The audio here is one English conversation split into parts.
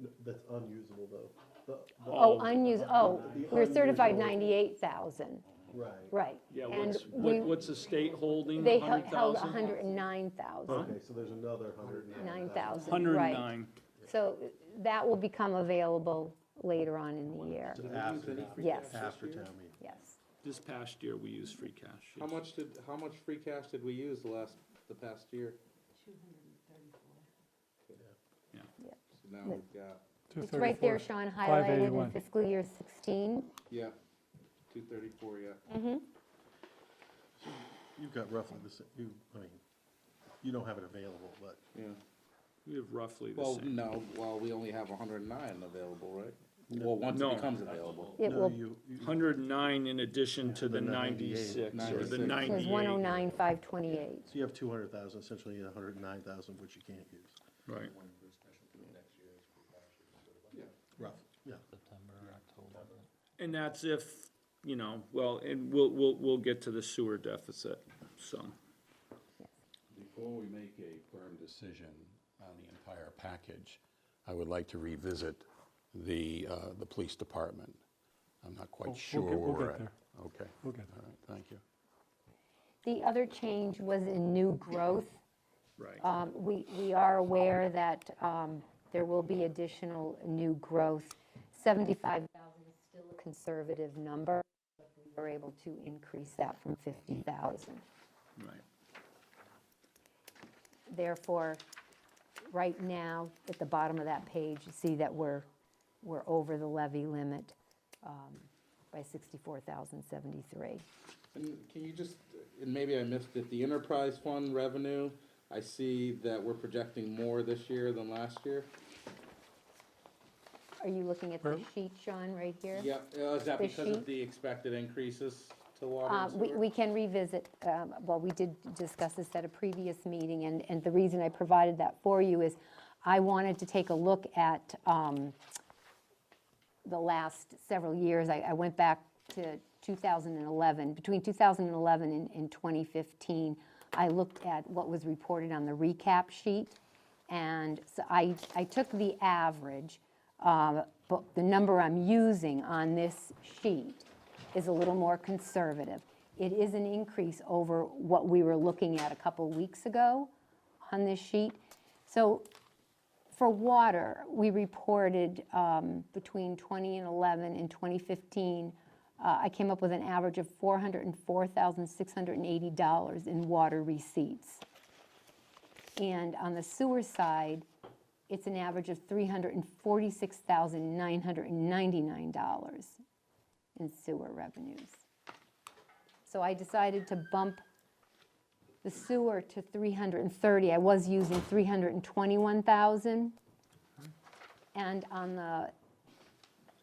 N- That's unusable though. The- the- Oh, unused, oh, The we're certified unusable- 98,000, Right. right. Yeah, And what's, we what- what's the state holding, They held hundred held thousand? 109,000, Okay, so there's another hundred and nine thousand. 9,000, Hundred and right. nine. So that will become available later on in the year, After, town- yes, after town meeting. yes. This past year, we used free cash. How yes. much did, how much free cash did we use the last, the past year? Yeah. Yeah. So now we've got, It's right there, Sean, highlighted in 581. fiscal year 16. yeah, two thirty-four, yeah. You've got roughly the, sa- you, I mean, you don't have it available, but Yeah. We have roughly the Well, same. no, well, we only have hundred and nine available, right? Well, once No. it becomes available. It no, will, you, you- Hundred and nine in addition to the the 98, ninety-six or the 96. there's ninety-eight. 109,528. so you have two hundred thousand, essentially a hundred and nine thousand, which you can't use. Right. Roughly, yeah. And that's if, you know, well, and we'll, we'll, we'll get to the sewer deficit, so. Before we make a firm decision on the entire package, I would like to revisit the, uh, the police department. I'm not Oh, we'll quite sure get- where we'll we're get at. there. Okay. We'll get All right, thank you. The other change was in new growth. Right. Um, We, we are aware that um, there will be additional new growth. 75,000 is still a conservative number, but we were able to increase that from 50,000. Right. Therefore, right now, at the bottom of that page, you see that we're, we're over the levy limit um, by 64,073. And can you just, and maybe I missed it, the enterprise fund revenue, I see that we're projecting more this year than last year. Are you looking at the Where? sheet, Sean, right here? Yeah, uh, is that The because sheet? of the expected increases to water Uh, and We sewer? we can revisit, um, well, we did discuss this at a previous meeting, and, and the reason I provided that for you is I wanted to take a look at um, the last several years. I, I went back to 2011, between 2011 and- and 2015, I looked at what was reported on the recap sheet, and so I, I took the average, uh, but the number I'm using on this sheet is a little more conservative. It is an increase over what we were looking at a couple weeks ago on this sheet. So for water, we reported um, between 20 and 11 and 2015, uh, I came up with an average of $404,680 in water receipts. And on the sewer side, it's an average of $346,999 in sewer revenues. So I decided to bump the sewer to 330, I was using 321,000. And on the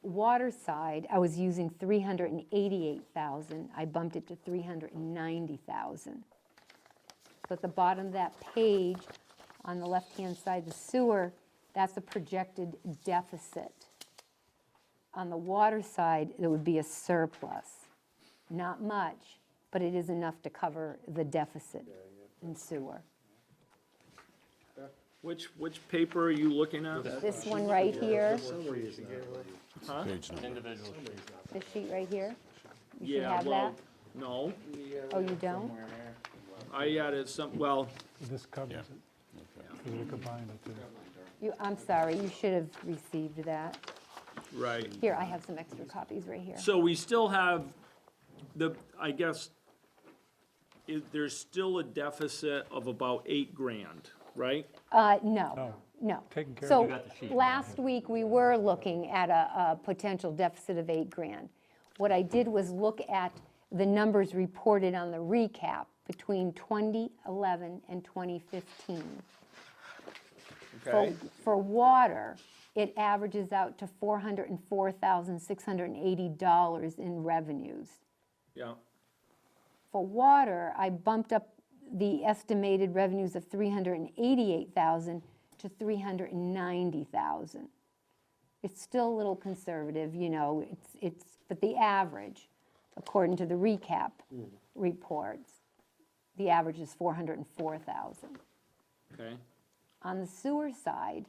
water side, I was using 388,000, I bumped it to 390,000. So at the bottom of that page, on the left-hand side, the sewer, that's a projected deficit. On the water side, there would be a surplus not much, but it is enough to cover the deficit in sewer. Which, which paper are you looking at? This one right here, Summary is not really- Page number. this sheet right here, you should Yeah, have well, that. no, Oh, you don't? I added some, well, This covers it, because we combined the two. You, I'm sorry, you should have received that. right. Here, I have some extra copies right here. So we still have the, I guess, i there's still a deficit of about eight grand, right? Uh, no, No. no. Taken Oh. care of. You So, last week, we were looking at a, a potential deficit of eight grand. What I did was look at the numbers reported on the recap between 2011 and 2015. For, for water, it averages out to $404,680 in revenues. Yeah, For water, I bumped up the estimated revenues of 388,000 to 390,000. It's still a little conservative, you know, it's, it's, but the average, according to the recap reports, the average is 404,000. okay. On the sewer side,